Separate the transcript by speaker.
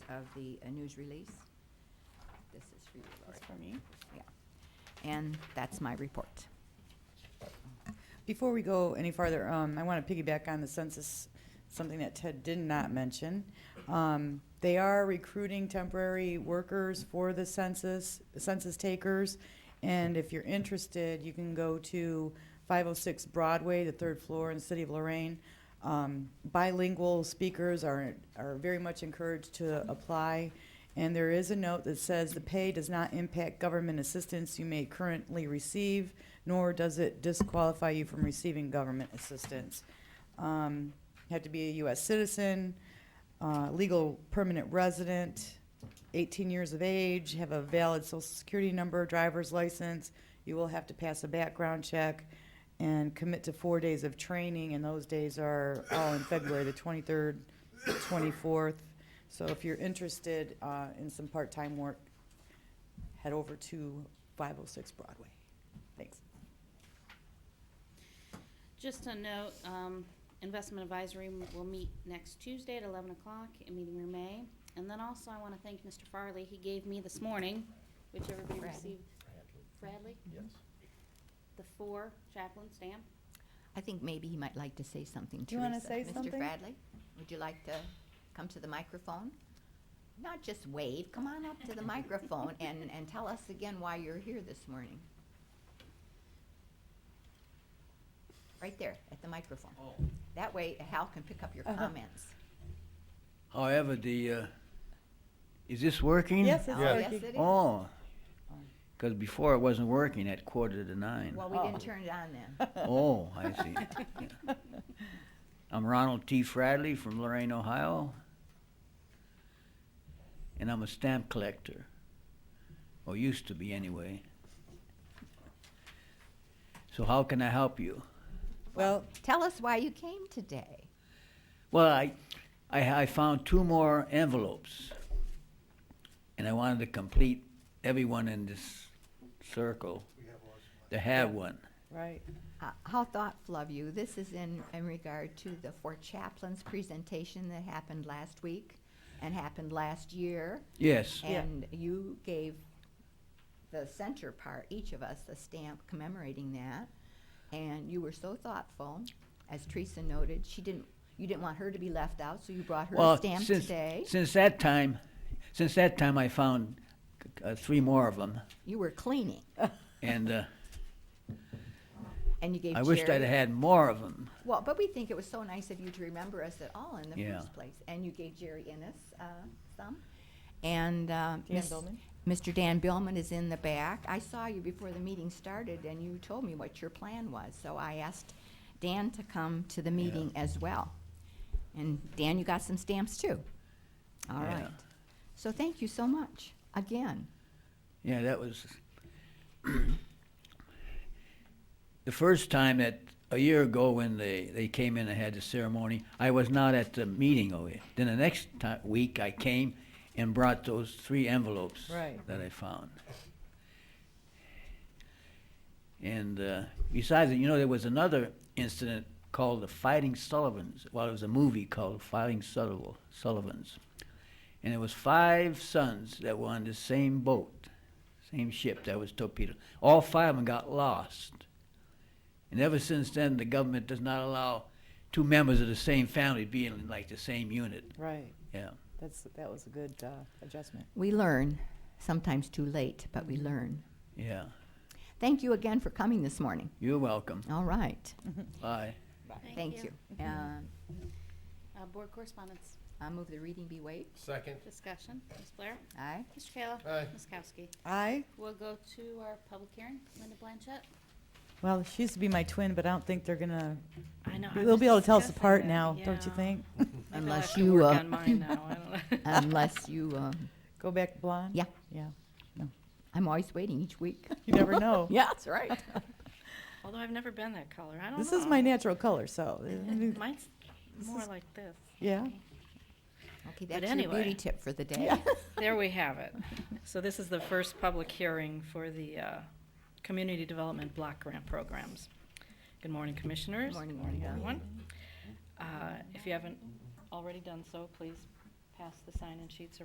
Speaker 1: of the uh, news release. This is for you, Lori.
Speaker 2: That's for me.
Speaker 1: And that's my report.
Speaker 2: Before we go any farther, um, I want to piggyback on the census, something that Ted did not mention. Um, they are recruiting temporary workers for the census, census takers. And if you're interested, you can go to five oh six Broadway, the third floor in the city of Lorraine. Um, bilingual speakers are, are very much encouraged to apply. And there is a note that says the pay does not impact government assistance you may currently receive, nor does it disqualify you from receiving government assistance. Um, you have to be a U.S. citizen, uh, legal permanent resident, 18 years of age, have a valid social security number, driver's license. You will have to pass a background check and commit to four days of training, and those days are all in February, the 23rd, 24th. So if you're interested uh, in some part-time work, head over to 506 Broadway. Thanks.
Speaker 3: Just a note, um, Investment Advisory m- will meet next Tuesday at eleven o'clock in meeting room A. And then also I wanna thank Mr. Farley, he gave me this morning, which everybody
Speaker 1: Bradley.
Speaker 3: received, Bradley,
Speaker 4: Yes.
Speaker 3: the four chaplain stamp.
Speaker 1: I think maybe he might like to say something,
Speaker 2: Do you wanna
Speaker 1: Teresa.
Speaker 2: say something?
Speaker 1: Mr. Bradley, would you like to come to the microphone? Not just wave, come on up to the microphone and, and tell us again why you're here this morning. Right there, at the microphone. That way Hal can pick up your
Speaker 2: Uh-huh.
Speaker 1: comments.
Speaker 5: However, the, uh, is this working?
Speaker 2: Yes,
Speaker 1: Oh,
Speaker 2: it's
Speaker 1: yes,
Speaker 2: working.
Speaker 1: it is.
Speaker 5: Oh, because before it wasn't working at quarter to nine.
Speaker 1: Well, we
Speaker 2: Oh.
Speaker 1: didn't turn it on then.
Speaker 5: Oh, I see. I'm Ronald T. Fradley from Lorraine, Ohio, and I'm a stamp collector, or used to be anyway. So how can I help you?
Speaker 2: Well,
Speaker 1: Tell us why you came today.
Speaker 5: Well, I, I, I found two more envelopes, and I wanted to complete everyone in this circle to have one.
Speaker 2: right.
Speaker 1: Uh, How thoughtful of you. This is in, in regard to the four chaplains presentation that happened last week and happened last year.
Speaker 5: Yes,
Speaker 2: Yeah.
Speaker 1: And you gave the center part, each of us, a stamp commemorating that. And you were so thoughtful, as Teresa noted, she didn't, you didn't want her to be left out, so you brought her a
Speaker 5: well,
Speaker 1: stamp
Speaker 5: since,
Speaker 1: today.
Speaker 5: since that time, since that time, I found uh, three more of them,
Speaker 1: You were cleaning,
Speaker 5: and uh,
Speaker 1: and you gave
Speaker 5: I wished I'd
Speaker 1: Jerry-
Speaker 5: had more of them.
Speaker 1: Well, but we think it was so nice of you to remember us at all in the
Speaker 5: Yeah.
Speaker 1: first place. And you gave Jerry Innes uh, some. And uh, Miss-
Speaker 2: Billman?
Speaker 1: Mr. Dan Billman is in the back. I saw you before the meeting started, and you told me what your plan was. So I asked Dan to come to the meeting as well. And Dan, you got some stamps too. All
Speaker 5: Yeah.
Speaker 1: right. So thank you so much again.
Speaker 5: Yeah, that was the first time that a year ago when they, they came in and had the ceremony. I was not at the meeting over here. Then the next ti week I came and brought those three envelopes
Speaker 2: Right.
Speaker 5: that I found. And uh, besides, it, you know, there was another incident called the Fighting Sullivans. Well, it was a movie called Fighting Sullivan, Sullivans, and it was five sons that were on the same boat same ship that was torpedoed. All five of them got lost. And ever since then, the government does not allow two members of the same family being in like the same unit.
Speaker 2: Right.
Speaker 5: Yeah.
Speaker 2: That's, that was a good uh, adjustment.
Speaker 1: We learn, sometimes too late, but we learn.
Speaker 5: Yeah.
Speaker 1: Thank you again for coming this morning.
Speaker 5: You're welcome.
Speaker 1: All right.
Speaker 5: Bye.
Speaker 1: Thank you. Uh,
Speaker 3: Uh, board correspondence,
Speaker 1: I move the reading be waived.
Speaker 4: Second.
Speaker 3: discussion, Ms. Blair,
Speaker 1: Aye.
Speaker 3: Mr. Kayla.
Speaker 4: Aye.
Speaker 3: Ms. Kowski.
Speaker 2: I,
Speaker 3: We'll go to our public hearing, Linda Blanchett.
Speaker 2: well, she used to be my twin, but I don't think they're gonna,
Speaker 6: I know. I
Speaker 2: they'll
Speaker 6: was
Speaker 2: be able to tell us
Speaker 6: discussing
Speaker 2: apart
Speaker 6: that,
Speaker 2: now, don't you
Speaker 6: yeah.
Speaker 2: think?
Speaker 6: Maybe I'll
Speaker 1: Unless
Speaker 6: have to
Speaker 1: you,
Speaker 6: work
Speaker 1: uh,
Speaker 6: on mine now, I don't know.
Speaker 1: Unless you, uh,
Speaker 2: Go back blonde?
Speaker 1: Yeah.
Speaker 2: Yeah.
Speaker 1: I'm always waiting each week.
Speaker 2: You never know.
Speaker 1: Yeah, that's right.
Speaker 6: Although I've never been that color. I don't
Speaker 2: This is
Speaker 6: know.
Speaker 2: my natural color, so,
Speaker 6: Mine's
Speaker 2: This
Speaker 6: more
Speaker 2: is-
Speaker 6: like this.
Speaker 2: yeah.
Speaker 1: Okay, that's your
Speaker 6: anyway.
Speaker 1: beauty tip for the day.
Speaker 2: Yeah.
Speaker 6: There we have it. So this is the first public hearing for the uh, Community Development Block Grant Programs. Good morning, Commissioners.
Speaker 1: Morning,
Speaker 6: Good
Speaker 1: morning.
Speaker 6: everyone. Uh, If you haven't already done so, please pass the sign-in sheets